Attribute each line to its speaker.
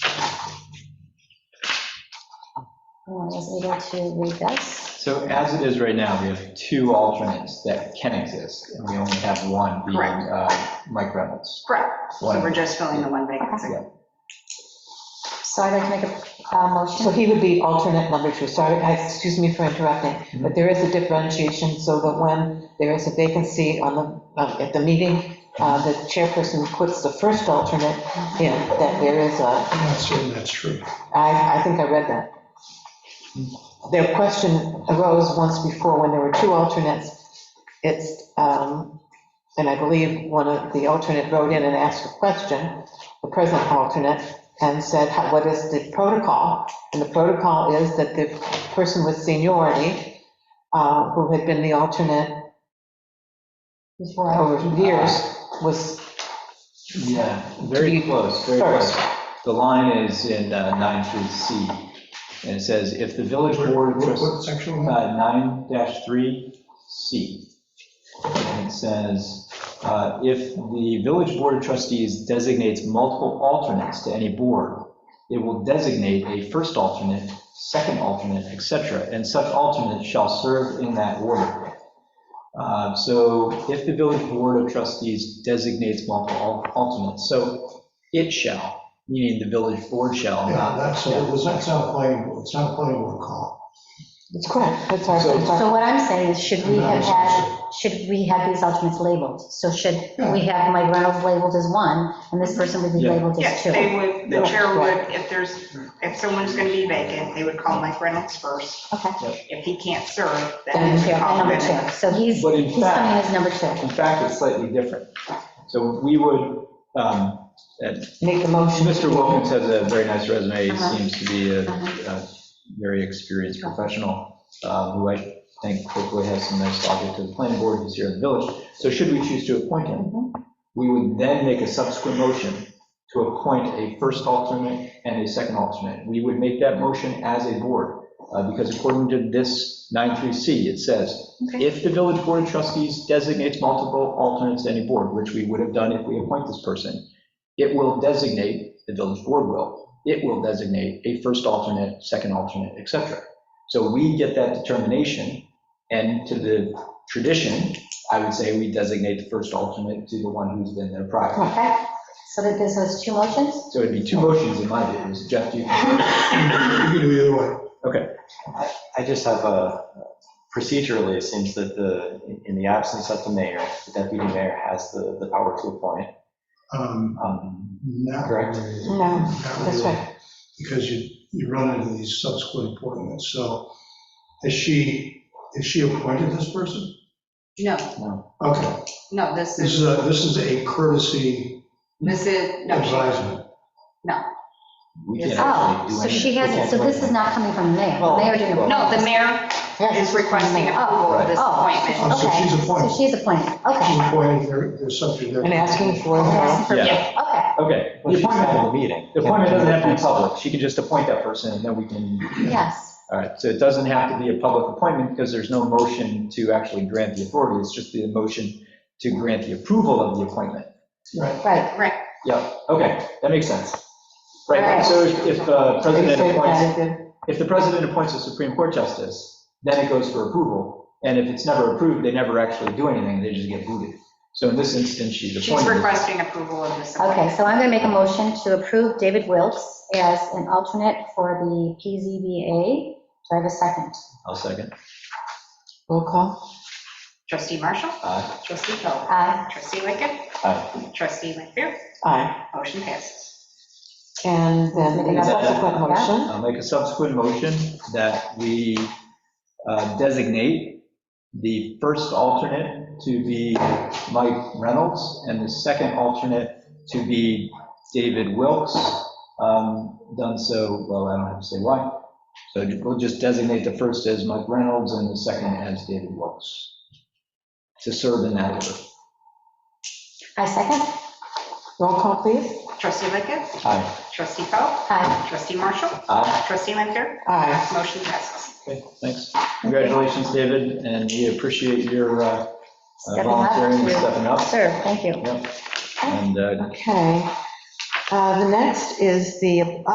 Speaker 1: Oh, I was able to read this.
Speaker 2: So as it is right now, we have two alternates that can exist, and we only have one being
Speaker 3: Correct.
Speaker 2: uh, Mike Reynolds.
Speaker 3: Correct. So
Speaker 2: One.
Speaker 3: we're just filling the one vacancy.
Speaker 1: So I'd like to make a uh,
Speaker 4: So
Speaker 1: motion.
Speaker 4: he would be alternate number two, sorry, I- excuse me for interrupting, but there is a differentiation so that when there is a vacancy on the, uh, at the meeting, uh, the chairperson puts the first alternate in, that there is a,
Speaker 5: I'm not certain that's true.
Speaker 4: I, I think I read that. Their question arose once before when there were two alternates. It's, um, and I believe one of the alternate wrote in and asked a question, the present alternate, and said, "How- what is the protocol? And the protocol is that the person with seniority, uh, who had been the alternate
Speaker 1: Before I-
Speaker 4: over years, was
Speaker 2: Yeah, very
Speaker 4: Be
Speaker 2: close, very close.
Speaker 4: first.
Speaker 2: The line is in uh, 9-3C, and it says, if the village board of
Speaker 5: What-
Speaker 2: trustees.
Speaker 5: What section? am I
Speaker 2: Uh, 9-3C. And it says, uh, if the village board of trustees designates multiple alternates to any board, it will designate a first alternate, second alternate, et cetera, and such alternate shall serve in that order. Uh, So if the village board of trustees designates multiple al- alternates, so it shall, meaning the village board shall,
Speaker 5: Yeah,
Speaker 2: not.
Speaker 5: that's, it was, that's not a planning, board. it's not a planning board call.
Speaker 4: It's correct, that's our,
Speaker 2: So-
Speaker 4: that's
Speaker 1: So
Speaker 4: our,
Speaker 1: what I'm saying is, should we have had, should we have these alternates labeled? So should we have Mike Reynolds labeled as one, and this person would be
Speaker 2: Yeah.
Speaker 1: labeled as
Speaker 3: Yes,
Speaker 1: two?
Speaker 3: they would, the
Speaker 2: Yeah.
Speaker 3: chair would, if there's, if someone's going to be vacant, they would call Mike Reynolds first.
Speaker 1: Okay.
Speaker 3: If he can't serve, then
Speaker 1: And
Speaker 3: they
Speaker 1: chair,
Speaker 3: call
Speaker 1: and
Speaker 3: him.
Speaker 1: number two. So he's,
Speaker 2: But in
Speaker 1: he's coming
Speaker 2: fact-
Speaker 1: as number two.
Speaker 2: In fact, it's slightly different. So we would, um, and
Speaker 4: make the motion.
Speaker 2: Mr. Wilkins has a very nice resume, He
Speaker 1: Uh-huh.
Speaker 2: seems to be a
Speaker 1: Uh-huh.
Speaker 2: a very experienced professional, uh, who I think hopefully has some nice logic to the planning board, who's here in the village. So should we choose to appoint
Speaker 1: Mm-hmm.
Speaker 2: him, we would then make a subsequent motion to appoint a first alternate and a second alternate. We would make that motion as a board, uh, because according to this 93C, it says,
Speaker 1: Okay.
Speaker 2: if the village board of trustees designates multiple alternates to any board, which we would have done if we appoint this person, it will designate, the village board will, it will designate a first alternate, second alternate, et cetera. So we get that determination, and to the tradition, I would say we designate the first alternate to the one who's been there prior.
Speaker 1: Okay, so that this was two motions?
Speaker 2: So it'd be two motions in my view, is Jeff, do you?
Speaker 5: You can do either way.
Speaker 6: I just have a, procedurally, it seems that the, in the absence of the mayor, the deputy mayor has the, the power to appoint.
Speaker 5: Um,
Speaker 6: Um,
Speaker 5: Not
Speaker 6: Correct.
Speaker 5: really.
Speaker 4: No,
Speaker 5: Not
Speaker 4: that's
Speaker 5: really,
Speaker 4: right.
Speaker 5: Because you, you run into these subsequent appointments. So is she, is she appointed this person?
Speaker 3: No,
Speaker 5: Okay,
Speaker 3: no, this
Speaker 5: this
Speaker 3: is,
Speaker 5: is, a- this is a courtesy
Speaker 3: this is, no, she-
Speaker 5: advisement.
Speaker 2: We
Speaker 3: Yes.
Speaker 2: can't
Speaker 1: Oh,
Speaker 2: actually do
Speaker 1: so
Speaker 2: anything.
Speaker 1: she hasn't, so this is not coming from the mayor,
Speaker 2: Oh.
Speaker 1: the mayor didn't.
Speaker 3: no, the mayor is requesting approval of this
Speaker 1: Oh, oh.
Speaker 3: appointment.
Speaker 5: Oh, so
Speaker 1: Okay,
Speaker 5: she's appointed.
Speaker 1: So she's appointed,
Speaker 5: She's
Speaker 1: okay.
Speaker 5: appointed, they're, they're subject to.
Speaker 4: And asking for, uh,
Speaker 2: Uh-huh. Yeah.
Speaker 1: Okay,
Speaker 2: Okay.
Speaker 6: Well, she's having a meeting.
Speaker 2: The appointment doesn't have to be public. She can just appoint that person and then we can,
Speaker 1: yes.
Speaker 2: all right. So it doesn't have to be a public appointment because there's no motion to actually grant the authority. It's just the motion to grant the approval of the appointment.
Speaker 5: Right.
Speaker 1: Right,
Speaker 2: Yeah, okay, that makes sense. Right,
Speaker 1: Right.
Speaker 2: so if if the
Speaker 4: they
Speaker 2: president
Speaker 4: said
Speaker 2: appoints,
Speaker 4: that the-
Speaker 2: if the president appoints a Supreme Court justice, then it goes for approval. And if it's never approved, they never actually do anything. They just get booted. So in this instance, she's
Speaker 3: She's
Speaker 2: appointed.
Speaker 3: requesting approval of this appointment.
Speaker 1: okay, so I'm gonna make a motion to approve David Wilks as an alternate for the PZBA. Do I have a second?
Speaker 2: I'll second.
Speaker 4: Roll call.
Speaker 3: Trustee Marshall,
Speaker 2: Aye.
Speaker 3: trustee Coe,
Speaker 1: Aye.
Speaker 3: trustee Lickett,
Speaker 6: Aye.
Speaker 3: trustee Lanfair,
Speaker 4: Aye.
Speaker 3: motion passes.
Speaker 4: And then the subsequent motion.
Speaker 2: I'll make a subsequent motion that we uh, designate the first alternate to be Mike Reynolds and the second alternate to be David Wilkes. Um, Done so, well, I don't have to say why. So we'll just designate the first as Mike Reynolds and the second as David Wilkes to serve in that order.
Speaker 1: I second?
Speaker 4: Roll call, please.
Speaker 3: Trustee Lickett,
Speaker 2: Aye.
Speaker 3: trustee Coe,
Speaker 1: Aye.
Speaker 3: trustee Marshall,
Speaker 2: Aye.
Speaker 3: trustee Lanfair,
Speaker 4: Aye.
Speaker 3: motion passes.
Speaker 2: Okay, thanks. Congratulations, David, and we appreciate your uh,
Speaker 1: Stepping up
Speaker 2: volunteering and
Speaker 1: to-
Speaker 2: stepping up.
Speaker 1: Sir, thank you.
Speaker 2: Yep. And uh,
Speaker 4: Okay. Uh, The next is the